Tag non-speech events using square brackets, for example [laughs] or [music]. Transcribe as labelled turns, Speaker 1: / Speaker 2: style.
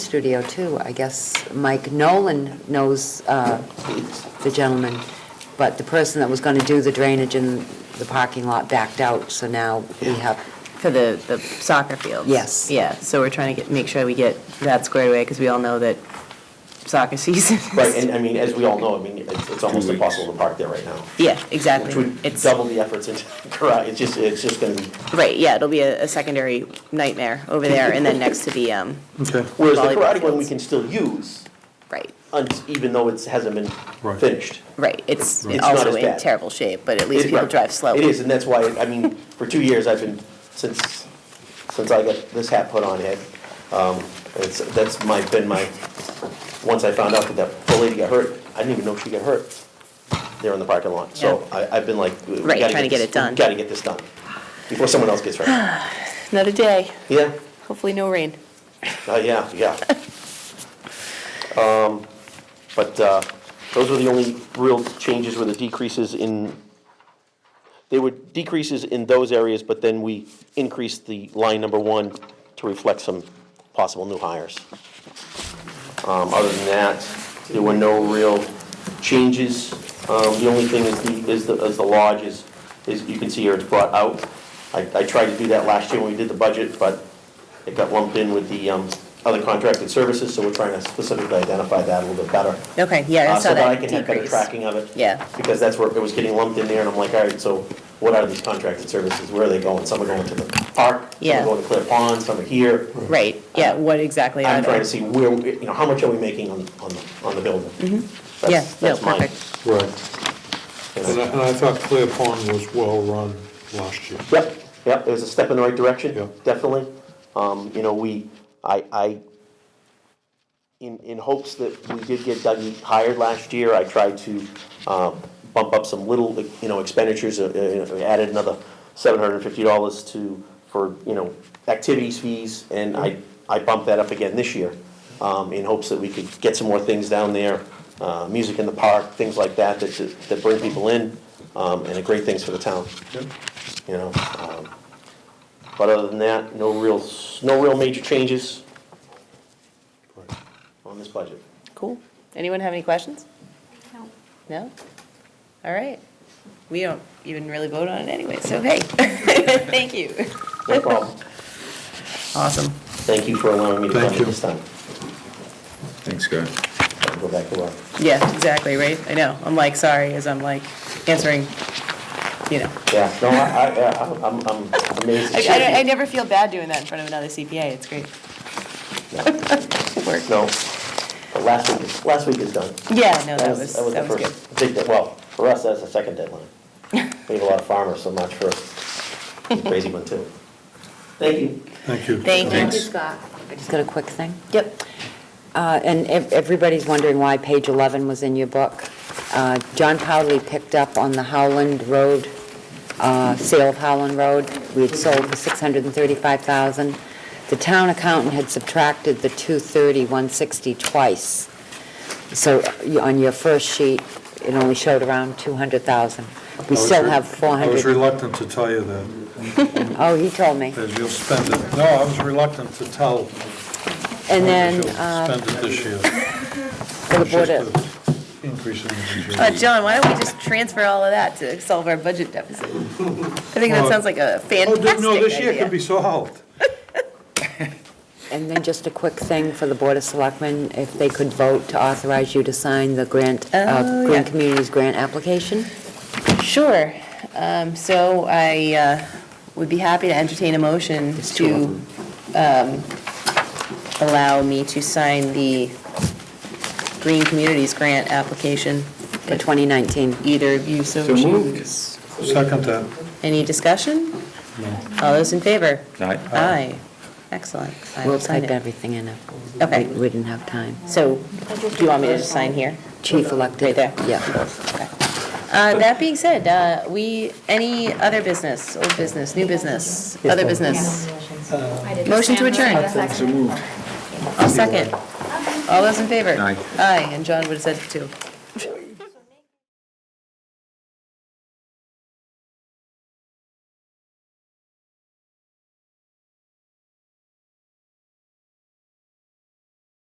Speaker 1: studio too. I guess Mike Nolan knows uh, the gentleman, but the person that was going to do the drainage in the parking lot backed out, so now we have,
Speaker 2: For the, the soccer fields?
Speaker 1: Yes.
Speaker 2: Yeah, so we're trying to get, make sure we get that squared away, because we all know that soccer [laughs] season is.
Speaker 3: Right, and I mean, as we all know, I mean, it's, it's almost
Speaker 4: Two weeks.
Speaker 3: impossible to park there right now.
Speaker 2: Yeah, exactly.
Speaker 3: Which would
Speaker 2: It's-
Speaker 3: double the efforts [laughs] into garage, it's just, it's just gonna be,
Speaker 2: Right, yeah, it'll be a, a secondary nightmare over there, and then next to the, um,
Speaker 4: Okay.
Speaker 3: whereas the
Speaker 2: Volleyball
Speaker 3: karate one we
Speaker 2: fields.
Speaker 3: can still use,
Speaker 2: right,
Speaker 3: un- even though it hasn't been
Speaker 4: Right.
Speaker 3: finished.
Speaker 2: right, it's
Speaker 3: It's not
Speaker 2: also
Speaker 3: as
Speaker 2: in
Speaker 3: bad.
Speaker 2: terrible shape, but at least
Speaker 3: It-
Speaker 2: people
Speaker 3: right.
Speaker 2: drive slow.
Speaker 3: It is, and that's why, I mean, for two years, I've been, since, since I got this hat put on head, um, it's, that's my, been my, once I found out that that poor lady got hurt, I didn't even know she got hurt there in the parking lot. So
Speaker 2: Yeah.
Speaker 3: I, I've been like, we
Speaker 2: Right,
Speaker 3: gotta
Speaker 2: trying to get
Speaker 3: this-
Speaker 2: it done.
Speaker 3: we Gotta get this done, before someone else gets
Speaker 2: [sighs]
Speaker 3: hurt.
Speaker 2: Another day,
Speaker 3: Yeah,
Speaker 2: hopefully no rain.
Speaker 3: uh, yeah, yeah. Um, But, uh, those were the only real changes were the decreases in, they were decreases in those areas, but then we increased the line number one to reflect some possible new hires. Um, other than that, there were no real changes. Um, the only thing is the, is the, is the lodge is, is you can see here it's brought out. I, I tried to do that last year when we did the budget, but it got lumped in with the, um, other contracted services, so we're trying to specifically identify that a little bit better.
Speaker 2: Okay, yeah,
Speaker 3: Uh,
Speaker 2: I saw that
Speaker 3: So that I can have better
Speaker 2: decrease.
Speaker 3: tracking of it.
Speaker 2: Yeah.
Speaker 3: Because that's where it was getting lumped in there, and I'm like, all right, so what are these contracted services? Where are they going? Some are going to the park, some
Speaker 2: Yeah.
Speaker 3: are going to Clear Pond, some are here.
Speaker 2: Right, yeah, what exactly are
Speaker 3: I'm
Speaker 2: they?
Speaker 3: trying to see where, we- you know, how much are we making on, on, the on the building? That's-
Speaker 2: Mm-hmm. Yeah, no,
Speaker 3: that's mine,
Speaker 2: perfect.
Speaker 4: Right.
Speaker 3: you know.
Speaker 4: And I, and I thought Clear Pond was well-run last year.
Speaker 3: Yep, yep, it was a step in the right
Speaker 4: Yeah.
Speaker 3: direction, definitely. Um, you know, we, I, I, in, in hopes that we did get Dougie hired last year, I tried to, uh, bump up some little, you know, expenditures, uh, uh, added another seven hundred and fifty dollars to, for, you know, activities fees, and I, I bumped that up again this year, um, in hopes that we could get some more things down there, uh, music in the park, things like that, that, that bring people in, um, and are great things for the town you know. um, But other than that, no real, s- no real major changes
Speaker 4: Right.
Speaker 3: on this budget.
Speaker 2: Cool. Anyone have any questions?
Speaker 5: No.
Speaker 2: No? All right. We don't even really vote on it anyway, so hey, [laughs] thank you.
Speaker 3: No problem.
Speaker 2: Awesome.
Speaker 3: Thank you for allowing me to come
Speaker 4: Thank
Speaker 3: in
Speaker 4: you.
Speaker 3: this time.
Speaker 6: Thanks, guys.
Speaker 3: I'll Go back to work.
Speaker 2: Yeah, exactly, right? I know. I'm like, sorry, as I'm like answering, you know.
Speaker 3: Yeah, no, I, I, yeah, I'm, I'm amazed.
Speaker 2: I, I, I never feel bad doing that in front of another CPA. It's great.
Speaker 3: work. No, but last week, is- last week is done.
Speaker 2: Yeah, no, that was,
Speaker 3: the
Speaker 2: that was good.
Speaker 3: first Big, de- well, for us, that's the second
Speaker 2: [laughs]
Speaker 3: deadline. We have a lot of farmers, so I'm not sure. It's a Crazy one too. Thank you.
Speaker 4: Thank you.
Speaker 2: Thank you.
Speaker 6: Thanks.
Speaker 1: Scott, I just got a quick thing.
Speaker 2: Yep.
Speaker 1: Uh, And ev- everybody's wondering why page 11 was in your book. Uh, John Powley picked up on the Howland Road, uh, sale of Howland Road. We had sold for 635000 The town accountant had subtracted the 230, 160 twice. So you- on your first sheet, it only showed around 200000 We
Speaker 4: I was
Speaker 1: still
Speaker 4: re-
Speaker 1: have
Speaker 4: I was
Speaker 1: 400.
Speaker 4: reluctant to tell you that,
Speaker 1: Oh, he told me.
Speaker 4: because you'll spend it. No, I was reluctant to tell.
Speaker 1: And
Speaker 4: you
Speaker 1: then
Speaker 4: you'll
Speaker 1: uh,
Speaker 4: Spend it this year.
Speaker 1: for the
Speaker 4: It's
Speaker 1: Board of,
Speaker 4: just a Increase in the.
Speaker 2: Uh, John, why don't we just transfer all of that to solve our budget deficit? I think that
Speaker 4: Well-
Speaker 2: sounds like a
Speaker 4: Oh,
Speaker 2: fantastic idea.
Speaker 4: dude, no, this year could be solved.
Speaker 1: and then just a quick thing for the Board of Selectmen, if they could vote to authorize you to sign the grant, uh,
Speaker 2: Oh,
Speaker 1: Green
Speaker 2: yeah.
Speaker 1: Communities Grant application.
Speaker 2: Sure. Um, So I uh, would be happy to entertain a motion to um, allow me to sign the Green Communities Grant application.
Speaker 1: for 2019.
Speaker 2: Either of you so
Speaker 6: So moved.
Speaker 2: choose.
Speaker 4: Second that.
Speaker 2: Any discussion? All those in favor?
Speaker 6: Aye.
Speaker 2: Aye. Excellent. I will
Speaker 1: We'll
Speaker 2: sign
Speaker 1: type
Speaker 2: it.
Speaker 1: everything in. if-
Speaker 2: Okay.
Speaker 1: We didn't have time.
Speaker 2: So do you want me to just sign here?
Speaker 1: Chief elected.
Speaker 2: Right there.
Speaker 1: Yeah.
Speaker 2: Uh, That being said, uh, we, any other business, old business, new business, other business? Motion to adjourn.
Speaker 6: So moved.
Speaker 2: I'll second. All those in favor?
Speaker 6: Aye.
Speaker 2: Aye, and John would have said two.